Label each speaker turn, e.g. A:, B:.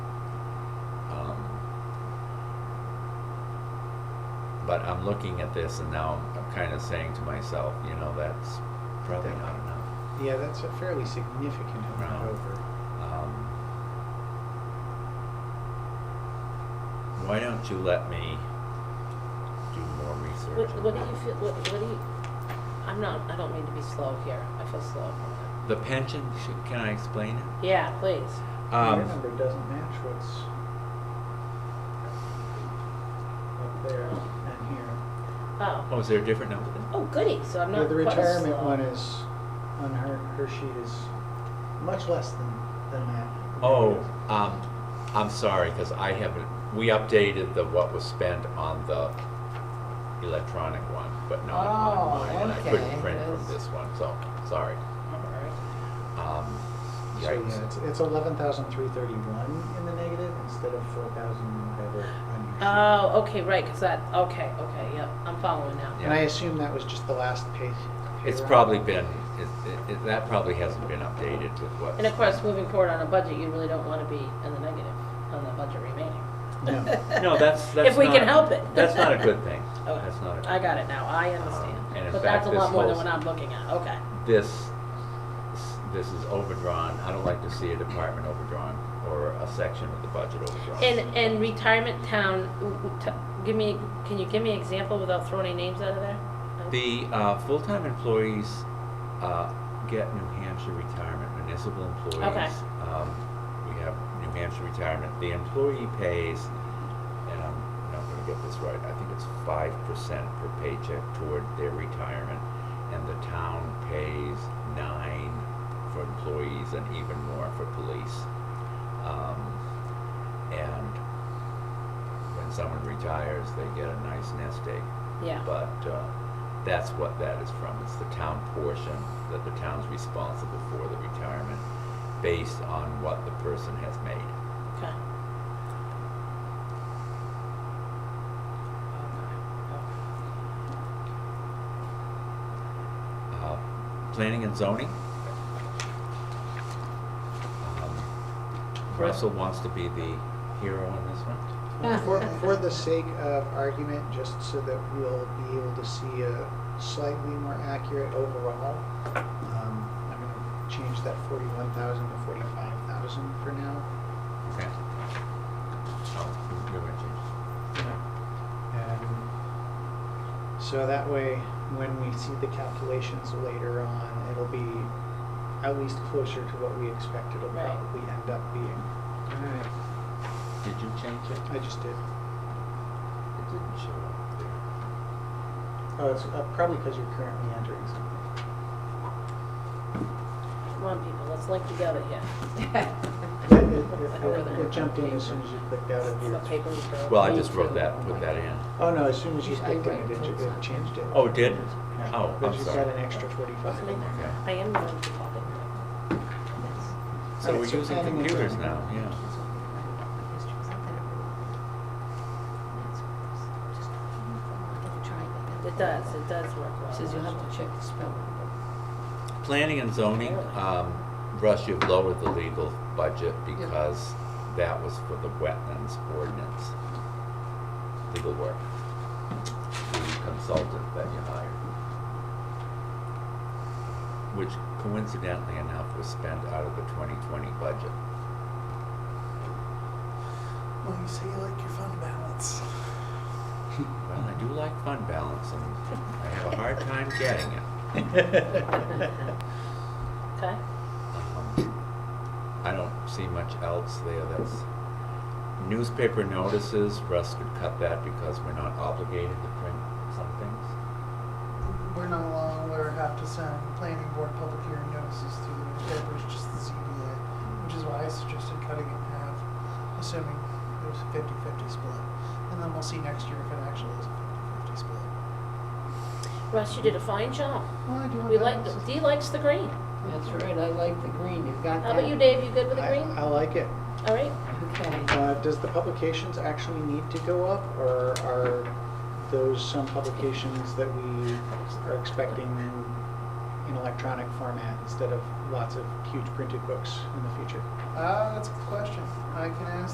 A: Um, But I'm looking at this and now I'm kind of saying to myself, you know, that's probably not enough.
B: Yeah, that's a fairly significant amount
A: No.
B: over.
A: Um, Why don't you let me do more
C: What,
A: research? on
C: what do
A: that?
C: you feel, what, what do you, I'm not, I don't mean to be slow here, I feel slow.
A: The pension, should- can I explain it?
C: Yeah, please.
B: Your
A: Um,
B: number doesn't match what's up there and here.
C: Oh,
A: oh, is there a different number then?
C: oh goody, so I'm
B: Yeah,
C: not
B: The
C: quite as
B: retirement
C: slow.
B: one is, on her, her sheet is much less than, than that.
A: Oh, um, I'm sorry, because I haven't, we updated the what was spent on the electronic one, but not
D: Oh,
A: on mine. and I couldn't
D: okay,
A: print from
D: yes.
A: this one, so, sorry.
C: Alright.
A: Um,
B: So yeah, it's,
A: yikes.
B: it's eleven thousand three thirty-one in the negative instead of four thousand whatever on your sheet.
C: Oh, okay, right, cause that, okay, okay, yep, I'm following now.
A: Yeah.
B: And I assume that was just the last page.
A: It's probably been, it- it, it, that probably hasn't been updated with what.
C: And of course, moving forward on a budget, you really don't wanna be in the negative on the budget remaining.
A: No,
B: No.
A: that's, that's not.
C: If we can help it.
A: That's not a good thing.
C: Okay.
A: That's not a good
C: I got it now, I understand.
A: Um, and in
C: But
A: fact,
C: that's a
A: this
C: lot more than
A: whole-
C: what I'm looking at, okay.
A: this, this is overdrawn. I don't like to see a department overdrawn or a section of the budget overdrawn.
C: And, and retirement town, w- w- t- give me, can you give me an example without throwing any names out of there? Um,
A: The uh, full-time employees uh, get New Hampshire retirement, municipal employees.
C: Okay.
A: um, We have New Hampshire retirement. The employee pays, and I'm not gonna get this right, I think it's five percent per paycheck toward their retirement. And the town pays nine for employees and even more for police. Um, And when someone retires, they get a nice nest egg.
C: Yeah.
A: But uh, that's what that is from. It's the town portion that the town's responsible for the retirement based on what the person has made.
C: Okay.
A: Uh, Planning and zoning. Um, Russell wants to be the hero on this one.
B: For, for the sake of argument, just so that we'll be able to see a slightly more accurate overall, um, I'm gonna change that forty-one thousand to forty-five thousand for now.
A: Okay. Oh, you're gonna change.
B: And so that way, when we see the calculations later on, it'll be at least closer to what we expect it'll
C: Right.
B: probably end up being.
A: Did you change it?
B: I just did.
A: It didn't show up there.
B: Oh, it's uh, probably because you're currently entering something.
C: Come on, people, let's link together here.
B: It,
D: Alright.
B: it- it- it jumped in as soon as you clicked out of
C: It's
B: your.
C: the paper you throw.
A: Well, I just wrote that, put that in.
B: Oh, no, as soon as you clicked in, it, it it changed it.
A: Oh, it did?
B: Yeah.
A: Oh,
B: But
A: I'm
B: you've got an
A: sorry.
B: extra forty-five.
C: Wasn't it? I am going to talk it.
A: So
B: Alright,
A: we're
B: so
A: using
B: planning and
A: computers
B: zoning.
A: now, yeah.
C: It does, it does work well.
D: Says you'll have to check the spelling.
A: Planning and zoning, um, Russ, you've lowered the legal budget because that was for the wetlands ordinance. Legal work. The consultant that you hired. Which coincidentally enough was spent out of the twenty twenty budget.
E: Well, you say you like your fund balance.
A: Well, I do like fund balance and I have a hard time getting it.
C: Okay,
A: Um, I don't see much else there that's, newspaper notices, Russ could cut that because we're not obligated to print some things.
E: We're no longer have to send planning board public hearing notices to the newspapers, just the ZBA, which is why I suggested cutting it in half, assuming there's a 50-50 split. And then we'll see next year if it actually is a 50-50 split.
C: Russ, you did a fine job.
E: Well, I do want
C: We like,
E: balances.
C: Dee likes the green.
D: That's right, I like the green, you've got
C: How
D: that.
C: about you, Dave, you good with the
B: I,
C: green?
B: I like it.
C: All right,
D: Okay.
B: Uh, does the publications actually need to go up, or are those some publications that we are expecting in electronic format instead of lots of huge printed books in the future?
E: Ah, that's a good Uh, question. I can ask